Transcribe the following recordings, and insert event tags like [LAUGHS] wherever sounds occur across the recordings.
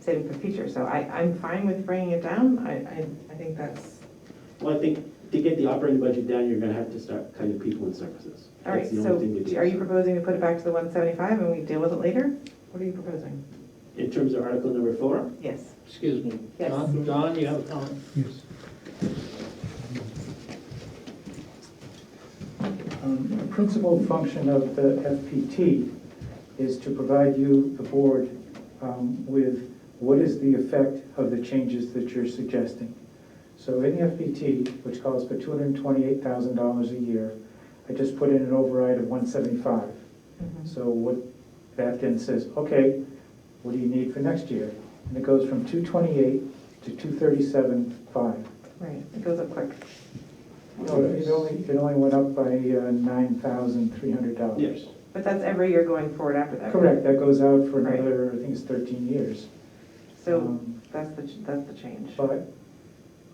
saving for the future, so I, I'm fine with bringing it down, I, I, I think that's, Well, I think to get the operating budget down, you're gonna have to start cutting people and services. all right, That's the so only thing to do. are you proposing to put it back to the one seventy-five and we deal with it later? What are you proposing? In terms of article number four, Yes, Excuse me. Yes. Don, Don, you have a comment? Yes. Um, A principal function of the FPT is to provide you, the board, um, with what is the effect of the changes that you're suggesting. So in the FPT, which calls for $228,000 a year, I just put in an override of 175. Mhm. So what, that then says, okay, what do you need for next year? And it goes from 228 to 237.5. right, it goes up quick. No, It only, it only went up by uh, nine thousand three hundred yes, dollars. But that's every year going forward after that. right? Correct, that goes out for Right. another, I think it's thirteen years. So Um, that's the, ch- that's the change. But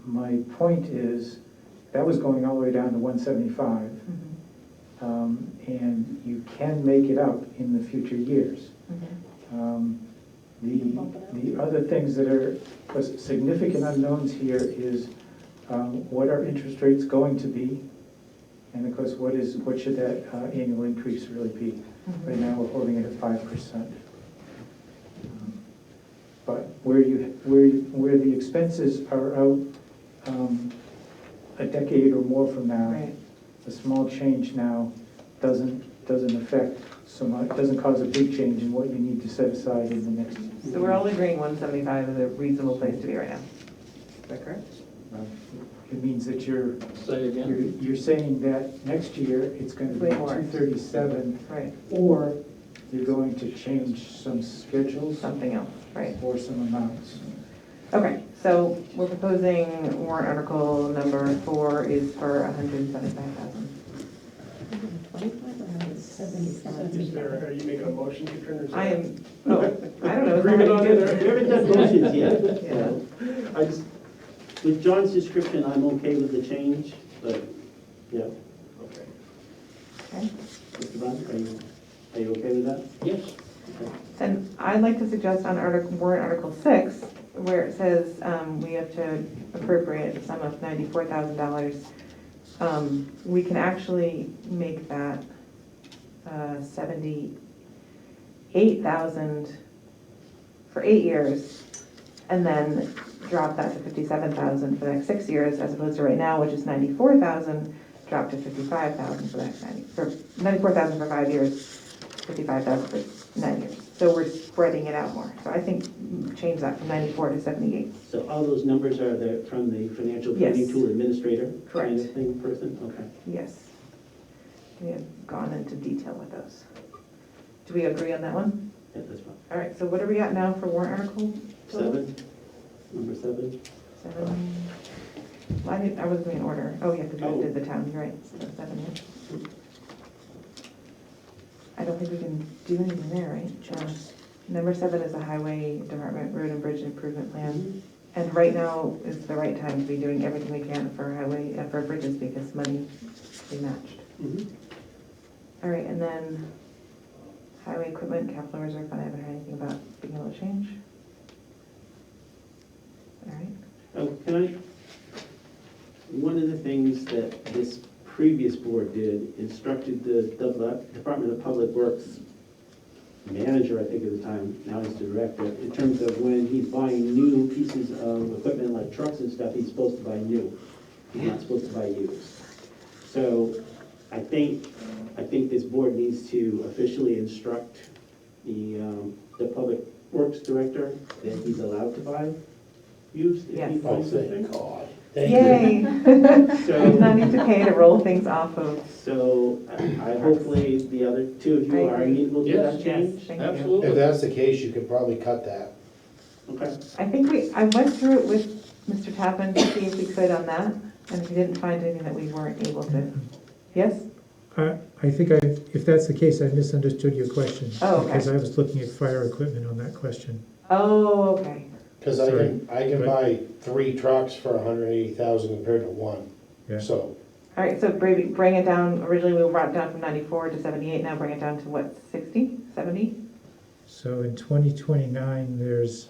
my point is, that was going all the way down to one seventy-five. um, Mhm. And you can make it up in the future years. Okay. Um, The, the other things that are was significant unknowns here is um, what are interest rates going to be? And of course, what is, what should that uh, annual increase really be? Right now, we're holding it at five percent. Um, But where you, where, you- where the expenses are out um, a decade or more from now, Mm-hmm. Right, a small change now doesn't, doesn't affect so much, doesn't cause a big change in what you need to set aside in the next so we're all agreeing one seventy-five is a reasonable place to be right now. Is that correct? It means that you're, Say you're, again. you're saying that next year it's gonna be Way more. two thirty-seven, Right, or you're going to change some schedules something else, right. or some amounts. Okay, so we're proposing warrant article number four is for hundred and seventy-five thousand. Is there, are you making a motion, Katrina? or is I am, that- oh, I don't know. is Agreement on somebody it, [LAUGHS] good? we haven't done motions yet. [LAUGHS] Yeah. I just, with John's description, I'm okay with the change, but, yeah, Okay. Okay. Mr. Brown, are you, are you okay with that? Yes. And I'd like to suggest on article, warrant article six, where it says, um, we have to appropriate a sum of ninety-four thousand dollars. Um, we can actually make that, uh, seventy-eight thousand for eight years, and then drop that to fifty-seven thousand for the next six years, as opposed to right now, which is ninety-four thousand, drop to fifty-five thousand for the next ninety, for ninety-four thousand for five years, fifty-five thousand for nine years. So we're spreading it out more. So I think change that from ninety-four to seventy-eight. So all those numbers are there from the financial Yes. planning tool administrator? Kind Correct. of thing, person, okay. Yes. We have gone into detail with those. Do we agree on that one? Yeah, that's fine. All right, so what are we at now for warrant article? total? Seven, number seven, Seven. Well, I didn't, I wasn't in order. Oh, yeah, because we did the town, you're right, so seven, yeah. I don't think we can do anything there, right? Sure. Number seven is the highway department road and bridge improvement plan. And right now is the right time to be doing everything we can for highway, uh, for bridges because money is matched. Mhm. All right, and then highway equipment, capital reserve fund, I haven't heard anything about being able to change. All right. Oh, can I? One of the things that this previous board did instructed the Dubla- Department of Public Works manager, I think at the time, now he's director, in terms of when he's buying new pieces of equipment like trucks and stuff, he's supposed to buy new. He's not supposed to buy used. So I think, I think this board needs to officially instruct the, um, the Public Works Director that he's allowed to buy used if he Yes. Oh, buys something. God. Yay! Not So, need to pay to roll things off of. so I I- hopefully the other two of you I are agree. amenable to Yes. that change? Thank you. Absolutely. If that's the case, you could probably cut that. Okay, I think we, I went through it with Mr. Tappan to see if we could on that, and we didn't find anything that we weren't able to. Yes? I, I think I, if that's the case, I misunderstood your question. Oh, okay. Because I was looking at fire equipment on that question. Oh, okay. Because I can, I can buy three trucks for hundred and eighty thousand compared to one. Yeah. So, All right, so bring, bring it down, originally we brought it down from ninety-four to seventy-eight, now bring it down to what, 60, 70? So in twenty twenty-nine, there's